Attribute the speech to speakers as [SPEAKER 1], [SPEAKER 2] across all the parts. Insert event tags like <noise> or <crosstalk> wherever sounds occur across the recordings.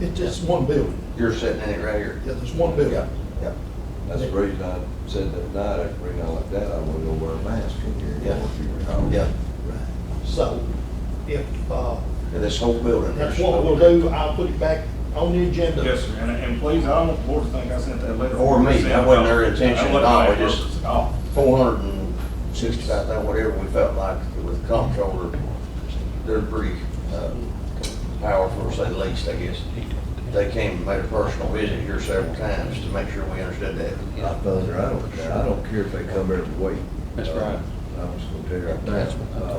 [SPEAKER 1] It's just one building.
[SPEAKER 2] You're sitting in it right here.
[SPEAKER 1] Yeah, there's one building.
[SPEAKER 2] Yeah.
[SPEAKER 3] That's the reason I said that night, after reading out like that, I wouldn't go wear a mask in here. you know,
[SPEAKER 2] Yeah.
[SPEAKER 3] if you recall.
[SPEAKER 2] Yeah.
[SPEAKER 1] So if, uh,
[SPEAKER 2] And this whole building.
[SPEAKER 1] that's what we'll do, I'll put it back on the agenda.
[SPEAKER 4] Yes, sir, and, and please, I don't want the board to think I sent that letter.
[SPEAKER 2] Or me. That wasn't their intention at all.
[SPEAKER 4] That wasn't my
[SPEAKER 2] We just-
[SPEAKER 4] purpose at all.
[SPEAKER 2] Four hundred and sixty-five thousand, whatever we felt like with comptroller, they're pretty, uh, powerful, to say the least, I guess. They came and made a personal visit here several times to make sure we understood that.
[SPEAKER 3] I told her, I don't, care. I don't care if they come every week.
[SPEAKER 5] That's
[SPEAKER 3] Uh,
[SPEAKER 5] right.
[SPEAKER 3] I'm just gonna tell you right now, uh,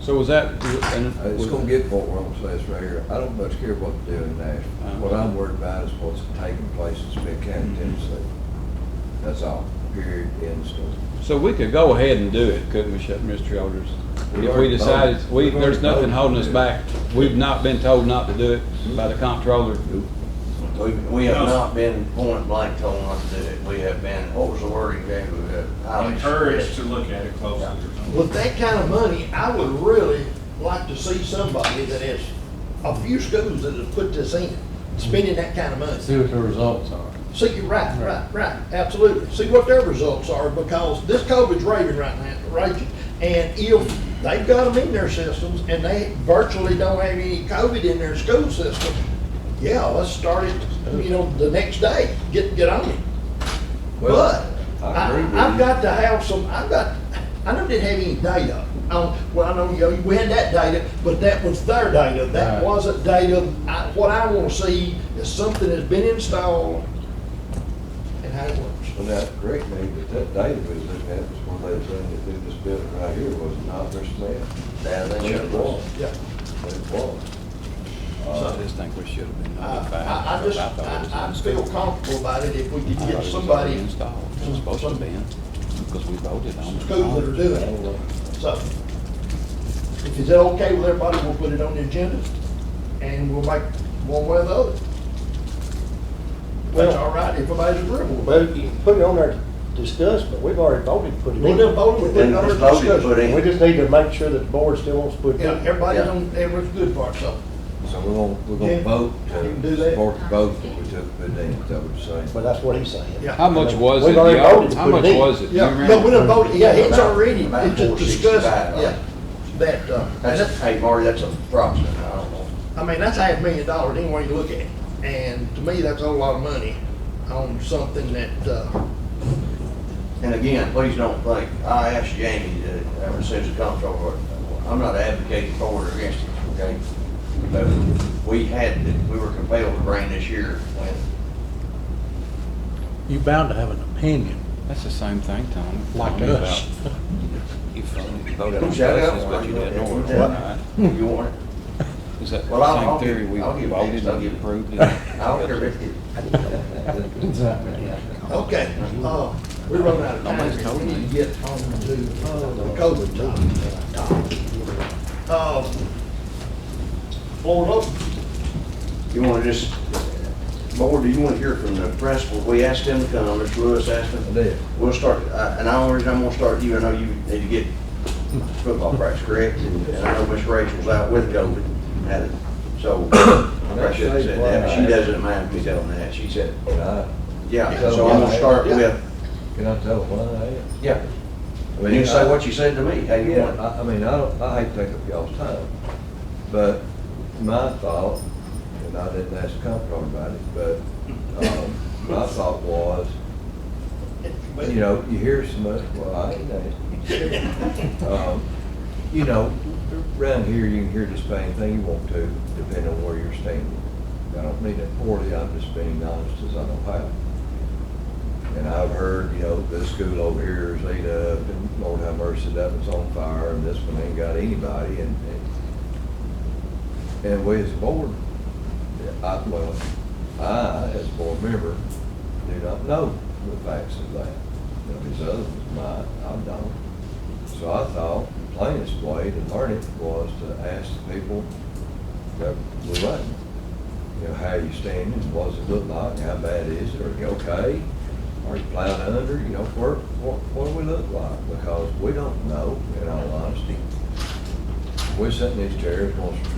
[SPEAKER 5] So was that? uh,
[SPEAKER 3] Uh, it's gonna get what we're gonna say this right here. I don't much care what they do in
[SPEAKER 5] Uh-huh.
[SPEAKER 3] Nashville. What I'm worried about is what's taking place in Smith
[SPEAKER 5] Mm-hmm.
[SPEAKER 3] County, Tennessee. That's all, period, end story.
[SPEAKER 5] So we could go ahead and do it, couldn't we, Shep- Mr. Elders?
[SPEAKER 3] We
[SPEAKER 5] If we
[SPEAKER 3] already
[SPEAKER 5] decided,
[SPEAKER 3] voted.
[SPEAKER 5] we,
[SPEAKER 3] We've already
[SPEAKER 5] there's nothing
[SPEAKER 3] voted.
[SPEAKER 5] holding us back. We've not been told not to do it by the comptroller.
[SPEAKER 2] We, we have not been point blank told not to do it. We have been, what was the word exactly? We have highly
[SPEAKER 4] Encouraged
[SPEAKER 2] suggested.
[SPEAKER 4] to look at it closely. or something.
[SPEAKER 1] With that kind of money, I would really like to see somebody that has, a few schools that have put this in, spending that kind of money.
[SPEAKER 6] See what the results are.
[SPEAKER 1] See, you're right, right, right, absolutely. See what their results are, because this COVID's raving right now, raging. And if they've got them in their systems and they virtually don't have any COVID in their school system, yeah, let's start it, you know, the next day, get, get on it. But
[SPEAKER 3] I
[SPEAKER 1] I,
[SPEAKER 3] agree with
[SPEAKER 1] I've
[SPEAKER 3] you.
[SPEAKER 1] got to have some, I've got, I don't didn't have any data. Um, well, I know, you know, we had that data, but that was their data. That
[SPEAKER 6] Right.
[SPEAKER 1] wasn't data. I, what I want to see is something that's been installed and how it works.
[SPEAKER 3] And that great thing, that that data we was looking at was when they was running it through this building right here, was it not their staff.
[SPEAKER 2] Now, they
[SPEAKER 3] It
[SPEAKER 2] should.
[SPEAKER 3] was,
[SPEAKER 1] Yeah.
[SPEAKER 3] it was.
[SPEAKER 5] I just think we should have been
[SPEAKER 1] I,
[SPEAKER 5] notified.
[SPEAKER 1] I, I just, I, I feel comfortable about it if we could get somebody,
[SPEAKER 5] Installed, it was supposed to be, because we voted on
[SPEAKER 1] some
[SPEAKER 5] it.
[SPEAKER 1] schools that are doing it. So, if is that okay with everybody, we'll put it on the agenda, and we'll make one way or the other. That's
[SPEAKER 7] Well-
[SPEAKER 1] all right, if everybody's agreeable. with it.
[SPEAKER 7] Well, you can put it on there to discuss, but we've already voted to put it
[SPEAKER 1] We'll
[SPEAKER 7] in.
[SPEAKER 1] do vote, we'll put
[SPEAKER 2] Then
[SPEAKER 1] it on
[SPEAKER 2] it's
[SPEAKER 1] our
[SPEAKER 2] voted, put
[SPEAKER 1] discussion.
[SPEAKER 2] in.
[SPEAKER 7] We just need to make sure that the board still wants to put it
[SPEAKER 1] Yeah,
[SPEAKER 7] in.
[SPEAKER 1] everybody's
[SPEAKER 2] Yeah.
[SPEAKER 1] on, everyone's good part, so.
[SPEAKER 3] So we're gonna, we're
[SPEAKER 1] Yeah.
[SPEAKER 3] gonna vote
[SPEAKER 1] You can do
[SPEAKER 3] to
[SPEAKER 1] that.
[SPEAKER 3] support the vote that we took, but then, is that what you're
[SPEAKER 7] But
[SPEAKER 3] saying?
[SPEAKER 7] that's what he's saying.
[SPEAKER 1] Yeah.
[SPEAKER 5] How much was it?
[SPEAKER 7] We've already
[SPEAKER 5] y'all?
[SPEAKER 7] voted to
[SPEAKER 5] How
[SPEAKER 7] put it
[SPEAKER 5] much
[SPEAKER 7] in.
[SPEAKER 5] was it? Do you
[SPEAKER 1] Yeah, no,
[SPEAKER 5] remember?
[SPEAKER 1] we done voted, yeah, it's
[SPEAKER 2] About-
[SPEAKER 1] already,
[SPEAKER 2] about
[SPEAKER 1] it's just discussed,
[SPEAKER 2] 465,
[SPEAKER 1] yeah. That, uh,
[SPEAKER 2] That's, hey, Marty, that's approximate. I don't know.
[SPEAKER 1] I mean, that's half a million dollars, any way you look at it. And to me, that's a whole lot of money on something that, uh,
[SPEAKER 2] And again, please don't think, I asked Jamie to, ever since the comptroller, I'm not advocating for it or against it, okay? But we had, to- we were compelled to bring this year when
[SPEAKER 6] You bound to have an opinion,
[SPEAKER 5] That's the same thing, Tom.
[SPEAKER 6] like
[SPEAKER 5] Tell me about- uh,
[SPEAKER 6] us.
[SPEAKER 5] You voted on
[SPEAKER 2] Don't shout out.
[SPEAKER 5] places, but you didn't order
[SPEAKER 2] What?
[SPEAKER 5] it.
[SPEAKER 2] you want it.
[SPEAKER 5] Is that
[SPEAKER 2] Well, I'll- I'll
[SPEAKER 5] the same theory
[SPEAKER 2] give-
[SPEAKER 5] we
[SPEAKER 2] I'll give
[SPEAKER 5] voted
[SPEAKER 2] Vince, I'll
[SPEAKER 5] and
[SPEAKER 2] give-
[SPEAKER 5] approved?
[SPEAKER 2] I don't care if it-
[SPEAKER 1] Okay, uh, we run out of
[SPEAKER 5] Nobody's told
[SPEAKER 1] time, we
[SPEAKER 5] me.
[SPEAKER 1] need to get on to uh, the COVID topic. Uh, Floor open,
[SPEAKER 2] You want to just, board, do you want to hear from the principal? We asked him to come, Mr. Lewis asked him.
[SPEAKER 3] I did.
[SPEAKER 2] We'll start, uh, and I only reason I'm gonna start you, I know you need to get football practice, correct? And I know Miss Rachel's out with COVID, and
[SPEAKER 3] <coughs>
[SPEAKER 2] so, I probably shouldn't have said that, but she doesn't mind me telling that, she said,
[SPEAKER 3] Can I,
[SPEAKER 2] yeah, so I'm gonna start with,
[SPEAKER 3] can I tell why I am?
[SPEAKER 2] yeah.
[SPEAKER 3] I
[SPEAKER 2] You
[SPEAKER 3] mean,
[SPEAKER 2] can say
[SPEAKER 3] I-
[SPEAKER 2] what you said to me, how you
[SPEAKER 3] Yeah,
[SPEAKER 2] want.
[SPEAKER 3] I, I mean, I don't, I hate to take up y'all's time, but my thought, and I didn't ask the comptroller about it, but, um, my thought was, you know, you hear so much, well, I ain't that. Um, You know, around here, you can hear just about anything you want to, depending on where you're standing. I don't mean it poorly, I'm just being honest as I know how. And I've heard, you know, this school over here is laid up, and Lord have mercy, that one's on fire, and this one ain't got anybody, and, and, and we as a board, I, well, I, as a board member, do not know the facts of that. Now, these others might, I don't. So I thought the plainest way to learn it was to ask the people that were running, you know, how you standing, what does it look like, how bad is it, are you okay? Are you plowed under, you know, what, what, what do we look like? Because we don't know, in all honesty. We're sitting in these chairs, wants to